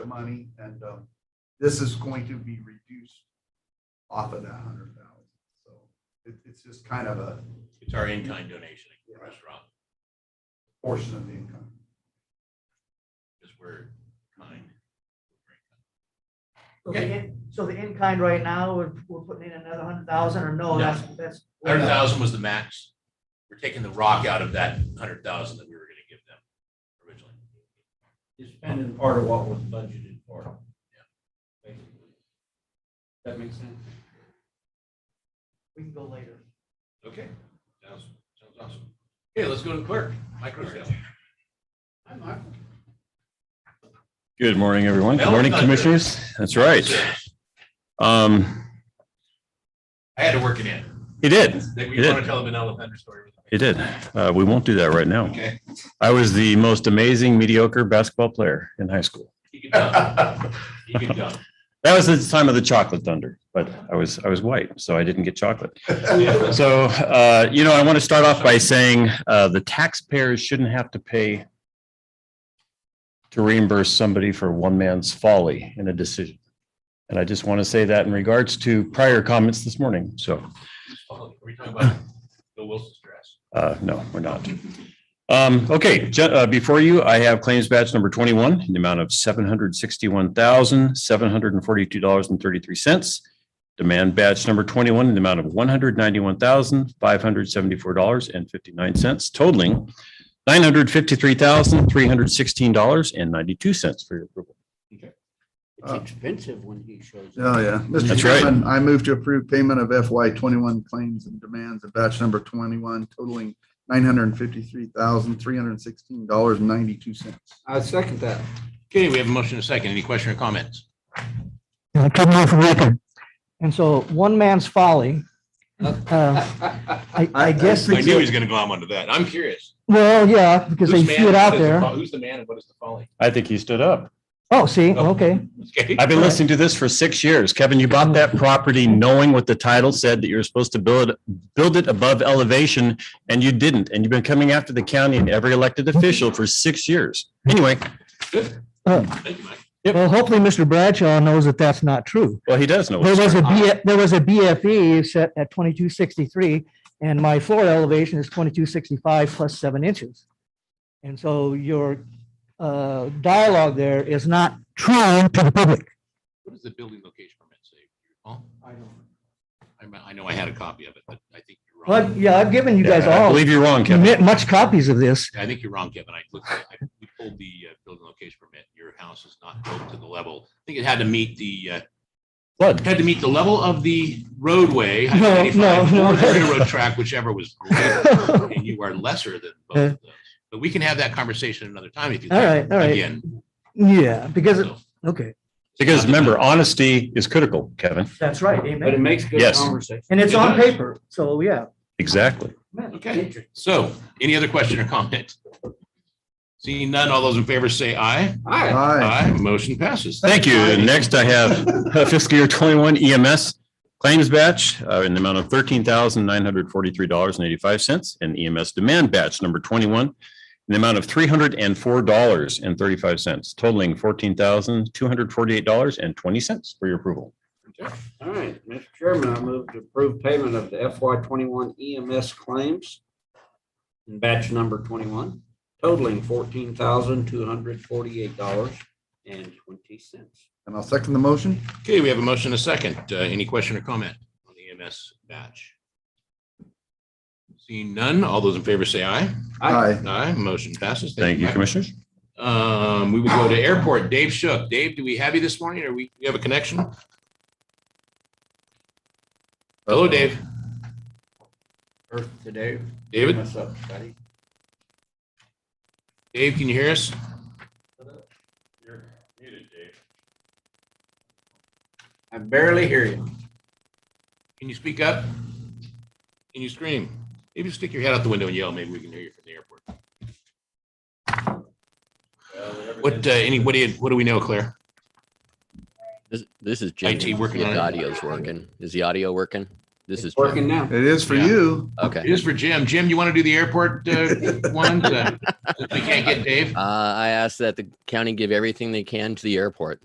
money and, um, this is going to be reduced off of that hundred thousand. So it, it's just kind of a It's our in-kind donation at the Yeah. restaurant, portion of the income. because we're kind. So the in- So the in-kind right now, we're, we're putting in another hundred thousand or No. no, that's, that's. Hundred thousand was the max. We're taking the rock out of that hundred thousand that we were gonna give them originally. You're spending part of what was budgeted for. Basically. That makes sense. We can go later. Okay, sounds, sounds awesome. Okay, let's go to the clerk, micro sale. Hi, Michael. Good morning, everyone. Good Well, morning, it's not good. commissioners. That's right. Um, I had to work it in. he did. That You we did. want to tell the vanilla vendor story. He did. Uh, we won't do that right now. Okay. I was the most amazing mediocre basketball player in high school. He could dunk. He could dunk. That was the time of the chocolate thunder, but I was, I was white, so I didn't get chocolate. So, uh, you know, I want to start off by saying, uh, the taxpayers shouldn't have to pay to reimburse somebody for one man's folly in a decision. And I just want to say that in regards to prior comments this morning. So Are we talking about Bill Wilson's dress? Uh, no, we're not. Um, okay, ju- uh, before you, I have claims batch number twenty-one, in the amount of seven hundred sixty-one thousand, seven hundred and forty-two dollars and thirty-three cents. Demand batch number twenty-one, in the amount of one hundred ninety-one thousand, five hundred seventy-four dollars and fifty-nine cents, totaling nine hundred fifty-three thousand, three hundred sixteen dollars and ninety-two cents for your approval. Uh, It's expensive when he shows up. Oh, yeah. Mr. That's right. Chairman, I move to approve payment of FY twenty-one claims and demands of batch number twenty-one totaling nine hundred and fifty-three thousand, three hundred and sixteen dollars and ninety-two cents. I second that. Okay, we have a motion and a second. Any question or comments? Yeah, come on for record. And so one man's folly, uh, I, I guess, I knew he it's- was gonna glom onto that. I'm curious. well, yeah, because they Whose man see it and what out is the there. fo- Who's the man and what is the folly? I think he stood up. Oh, see, Oh. okay. Okay. I've been listening to this for six years. Kevin, you bought that property knowing what the title said, that you were supposed to build, it- build it above elevation, and you didn't. And you've been coming after the county and every elected official for six years. Anyway, Thank you, Mike. Well, hopefully Mr. Bradshaw knows that that's not true. well, he does know. There what's was a going on. B, there was a BFE set at twenty-two sixty-three, and my floor elevation is twenty-two sixty-five plus seven inches. And so your uh, dialogue there is not true to the public. What does the building location permit say? Paul? I don't. I mi- I know I had a copy of it, but I think you're Well, I've- wrong. yeah, I've given you guys Yeah, I all believe you're wrong, Kevin. mi- much copies of this. I think you're wrong, Kevin. I looked, I, we pulled the uh, building location permit. Your house is not built to the level. I think it had to meet the, uh, Flood. had to meet the level of the roadway. No, no, 95, no. Or the railroad track, whichever was greater, and you are lesser than both of those. But we can have that conversation another time if you. All like. right, all right. Again. Yeah, because, it- so, okay. Because remember, honesty is critical, Kevin. That's right, But it makes good Yes. conversation. And it's It on does. paper, so yeah. Exactly. Okay, so any other question or comment? Seeing none, all those in favor say aye. Hi. Aye. Motion passes. Thank you. Next, I have uh, fiscal year twenty-one EMS claims batch uh, in the amount of thirteen thousand nine hundred forty-three dollars and eighty-five cents and EMS demand batch number twenty-one in the amount of three hundred and four dollars and thirty-five cents totaling fourteen thousand two hundred forty-eight dollars and twenty cents for your approval. All right, Mr. Chairman, I move to approve payment of the FY twenty-one EMS claims in batch number twenty-one totaling fourteen thousand two hundred forty-eight dollars and twenty cents. And I'll second the motion. Okay, we have a motion and a second. Uh, Any question or comment on the E EMS batch? Seeing none, all those in favor say aye. Aye. Aye, motion passes. Thank you, Michael. Commissioners. Um, we will go to airport. Dave Shook. Dave, do we have you this morning? Or we, you have a connection? Hello, Dave. Earth today. David, What's up, buddy? Dave, can you hear us? I barely hear you. Can you speak up? Can you scream? Maybe stick your head out the window and yell. Maybe we can hear you from the airport. What, uh, any, what do you, what do we know, Claire? This, this is IT Jimmy. See working if on it. The audio's working. Is the audio working? This is Jimmy. Working now. It is for Yeah. you. Okay. It is for Jim. Jim, you want to do the airport, uh, one? Uh, since We can't get Dave. Uh, I asked that the county give everything they can to the airport.